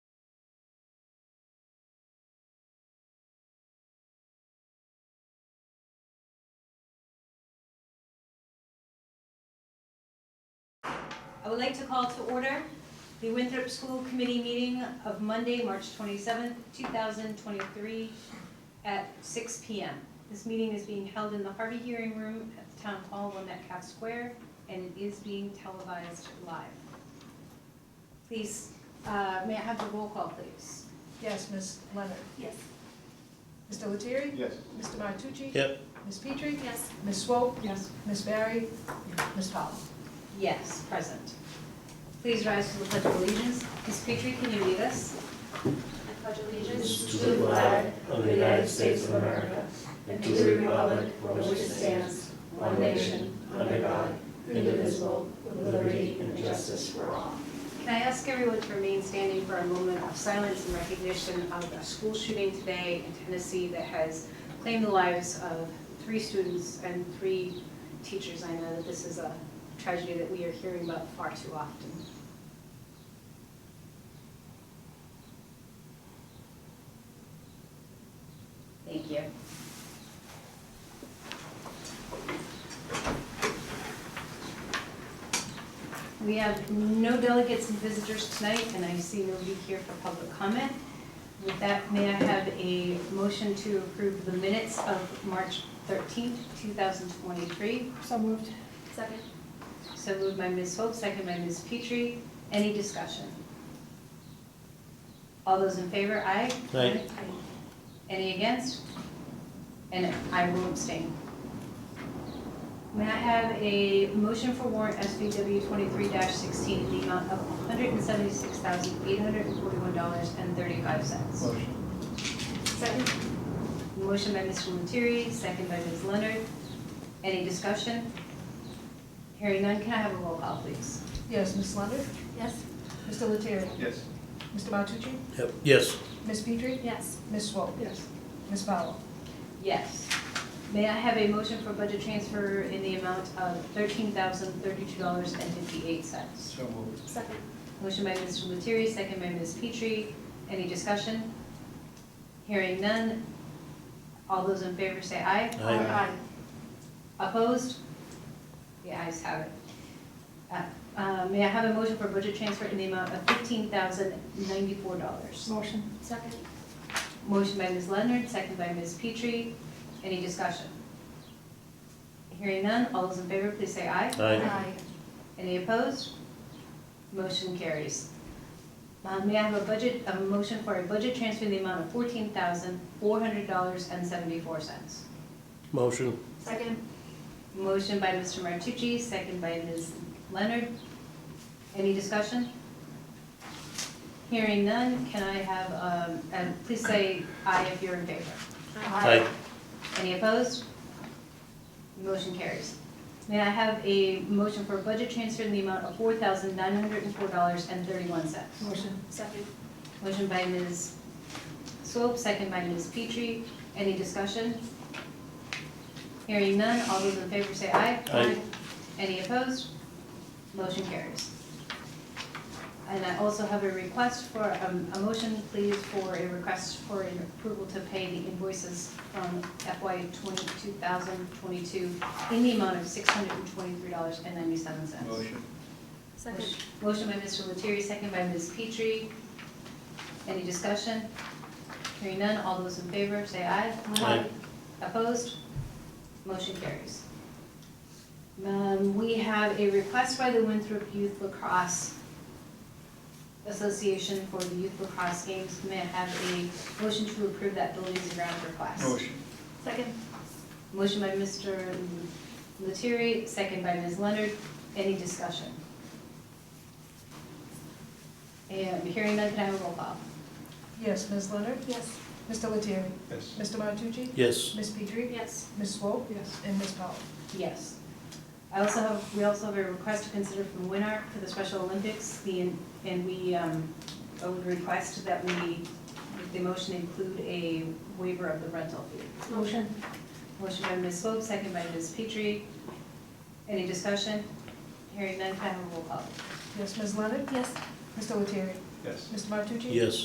I would like to call to order the Winthrop School Committee meeting of Monday, March 27th, 2023 at 6 PM. This meeting is being held in the Harvey Hearing Room at the Town Hall, One at Cap Square, and it is being televised live. Please, uh, may I have the roll call, please? Yes, Ms. Leonard. Yes. Mr. Lettieri? Yes. Mr. Martucci? Yep. Ms. Petrie? Yes. Ms. Swope? Yes. Ms. Barry? Ms. Powell? Yes, present. Please rise to the pledge of allegiance. Ms. Petrie, can you lead us? I pledge allegiance to the flag of the United States of America and to the republic for which it stands, one nation, under God, indivisible, with liberty and justice for all. Can I ask everyone to remain standing for a moment of silence in recognition of a school shooting today in Tennessee that has claimed the lives of three students and three teachers? I know that this is a tragedy that we are hearing about far too often. Thank you. We have no delegates and visitors tonight, and I see nobody here for public comment. With that, may I have a motion to approve the minutes of March 13th, 2023? So moved. Second. So moved by Ms. Hope, second by Ms. Petrie. Any discussion? All those in favor, aye? Aye. Any against? And I will abstain. May I have a motion for warrant SVW twenty-three sixteen in the amount of one hundred and seventy-six thousand, eight hundred and forty-one dollars and thirty-five cents? Motion. Second. Motion by Mr. Lettieri, second by Ms. Leonard. Any discussion? Hearing none, can I have a roll call, please? Yes, Ms. Leonard. Yes. Mr. Lettieri? Yes. Mr. Martucci? Yep. Yes. Ms. Petrie? Yes. Ms. Swope? Yes. Ms. Powell? Yes. May I have a motion for budget transfer in the amount of thirteen thousand, thirty-two dollars and fifty-eight cents? So moved. Second. Motion by Mr. Lettieri, second by Ms. Petrie. Any discussion? Hearing none. All those in favor say aye. Aye. Opposed? The ayes have it. Uh, uh, May I have a motion for budget transfer in the amount of $15,094? Motion. Second. Motion by Ms. Leonard, second by Ms. Petrie. Any discussion? Hearing none. All those in favor, please say aye. Aye. Any opposed? Motion carries. Uh, May I have a budget, a motion for a budget transfer in the amount of $14,400.74? Motion. Second. Motion by Mr. Martucci, second by Ms. Leonard. Any discussion? Hearing none, can I have, um, and please say aye if you're in favor. Aye. Any opposed? Motion carries. May I have a motion for a budget transfer in the amount of $4,904.31? Motion. Second. Motion by Ms. Swope, second by Ms. Petrie. Any discussion? Hearing none, all those in favor say aye. Aye. Any opposed? Motion carries. And I also have a request for, um, a motion, please, for a request for an approval to pay the invoices from FY 2022 in the amount of $623.97. Motion. Second. Motion by Mr. Lettieri, second by Ms. Petrie. Any discussion? Hearing none, all those in favor, say aye. Aye. Opposed? Motion carries. Um, We have a request by the Winthrop Youth Lacrosse Association for the Youth Lacrosse Games. May I have a motion to approve that buildings and grounds request? Motion. Second. Motion by Mr. Lettieri, second by Ms. Leonard. Any discussion? And hearing none, can I have a roll call? Yes, Ms. Leonard. Yes. Mr. Lettieri? Yes. Mr. Martucci? Yes. Ms. Petrie? Yes. Ms. Swope? Yes. And Ms. Powell? Yes. I also have, we also have a request to consider from Winark for the Special Olympics. The, and we, um, I would request that we, the motion include a waiver of the rental fee. Motion. Motion by Ms. Swope, second by Ms. Petrie. Any discussion? Hearing none, can I have a roll call? Yes, Ms. Leonard. Yes. Mr. Lettieri? Yes. Mr. Martucci? Yes.